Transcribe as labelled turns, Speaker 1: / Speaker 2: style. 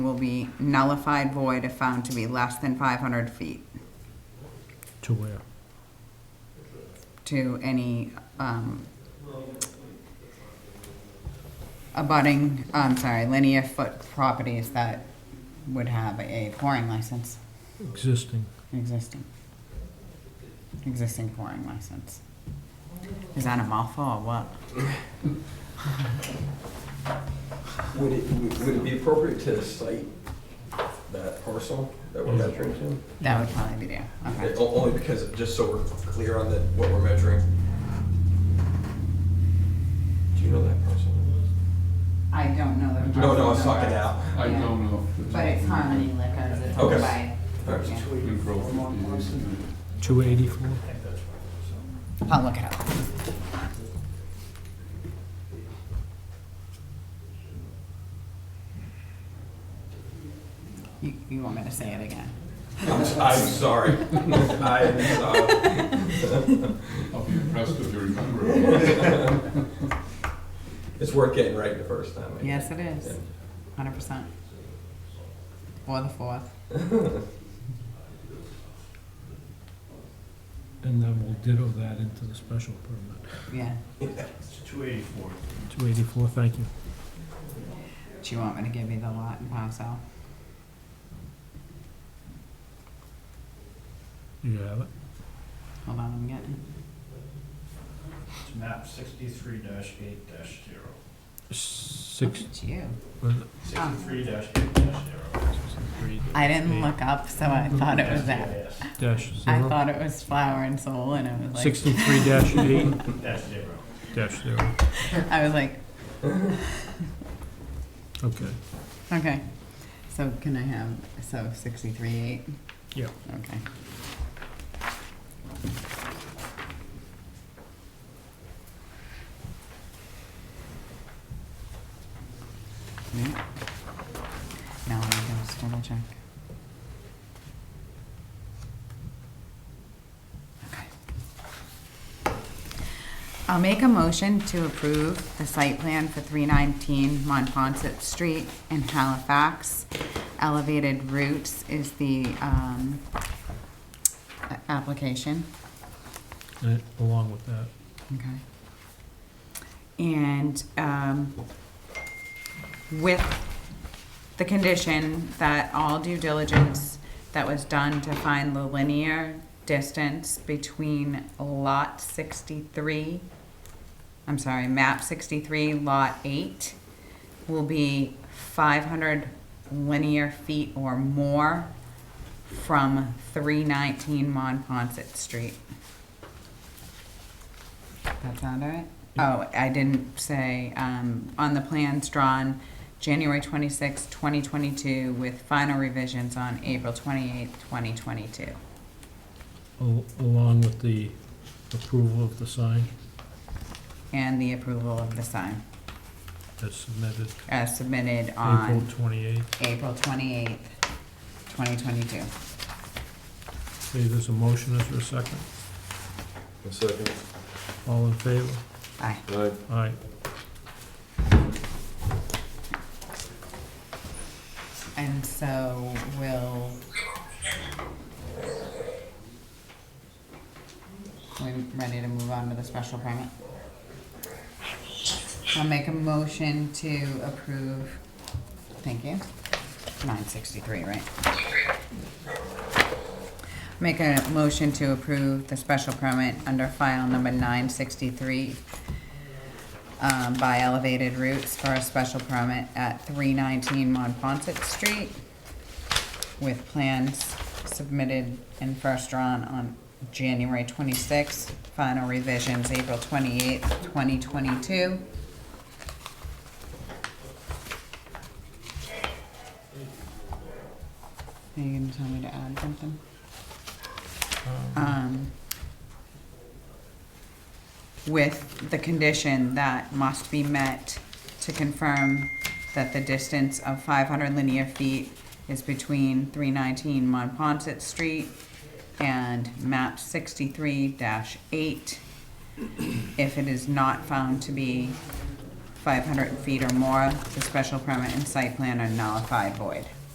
Speaker 1: will be nullified void if found to be less than 500 feet
Speaker 2: To where?
Speaker 1: to any um, abutting, I'm sorry, linear foot properties that would have a pouring license
Speaker 2: Existing.
Speaker 1: existing. Existing pouring license. Is that a mouthful or what?
Speaker 3: Would it, would would it be appropriate to cite that parcel that we're measuring to?
Speaker 1: That would probably be there, okay.
Speaker 3: O- Only because, just so we're clear on the, what we're measuring. Do you know that parcel?
Speaker 1: I don't know that.
Speaker 3: No, no, it's not gonna happen.
Speaker 4: I don't know. if
Speaker 1: But it's Harmony Liquors, it's owned
Speaker 3: Okay.
Speaker 1: by
Speaker 3: All right.
Speaker 1: Yeah.
Speaker 4: In Grove, it is.
Speaker 2: 284?
Speaker 1: I'll look it up. You, you want me to say it again?
Speaker 3: I'm, s- I'm sorry. I'm sorry.
Speaker 4: I'll be impressed if you remember. it.
Speaker 3: It's worth getting right the first time. I guess.
Speaker 1: Yes, it is, hundred percent. Or the fourth.
Speaker 2: And then we'll ditto that into the special permit.
Speaker 1: Yeah.
Speaker 5: Two
Speaker 2: 284, thank you.
Speaker 1: Do you want me to give you the lot and parcel?
Speaker 2: You have it?
Speaker 1: Hold on, I'm getting.
Speaker 5: map sixty-three dash eight dash zero.
Speaker 2: Six,
Speaker 1: It's you.
Speaker 2: was
Speaker 1: Ah.
Speaker 2: it
Speaker 5: Sixty-three dash eight dash zero.
Speaker 2: three
Speaker 1: I didn't look up, so I thought it was that.
Speaker 5: Yes,
Speaker 2: dash
Speaker 1: I
Speaker 2: zero?
Speaker 1: thought it was flower and soul, and I was like.
Speaker 2: 63 dash eight
Speaker 5: Dash zero.
Speaker 2: dash zero.
Speaker 1: I was like,
Speaker 2: Okay.
Speaker 1: Okay, so can I have, so sixty-three eight?
Speaker 2: Yeah.
Speaker 1: Okay. Yeah. Now I'm gonna just double check. Okay. I'll make a motion to approve the site plan for three nineteen Monpont Street in Halifax. Elevated Roots is the, um, a- application,
Speaker 2: And Uh, along with that,
Speaker 1: okay? And, um, with the condition that all due diligence that was done to find the linear distance between lot sixty-three I'm sorry, map sixty-three, lot eight, will be five hundred linear feet or more from three nineteen Mon Street. That sound all right? Oh, I didn't say, um, on the plans drawn January twenty-sixth, twenty twenty-two, with final revisions on April twenty-eighth, twenty twenty-two.
Speaker 2: al- along with the approval of the sign
Speaker 1: And the approval of the sign,
Speaker 2: that's submitted
Speaker 1: as submitted on.
Speaker 2: April 28th.
Speaker 1: April twenty-eighth, twenty twenty-two.
Speaker 2: Okay, there's a motion, is there a second?
Speaker 3: A second.
Speaker 2: All in favor?
Speaker 1: Aye.
Speaker 3: Aye.
Speaker 2: Aye.
Speaker 1: And so we'll. We ready to move on to the special permit? I'll make a motion to approve, thank you, nine sixty-three, right? Make a motion to approve the special permit under file number nine sixty-three um, by Elevated Roots for a special permit at three nineteen Monpont Street with plans submitted and first drawn on January twenty-sixth, final revisions April twenty-eighth, twenty twenty-two. Are you gonna tell me to add something? Um, with the condition that must be met to confirm that the distance of five hundred linear feet is between three nineteen Monpont Street and map sixty-three eight. If it is not found to be five hundred feet or more, the special permit and site plan are nullified void.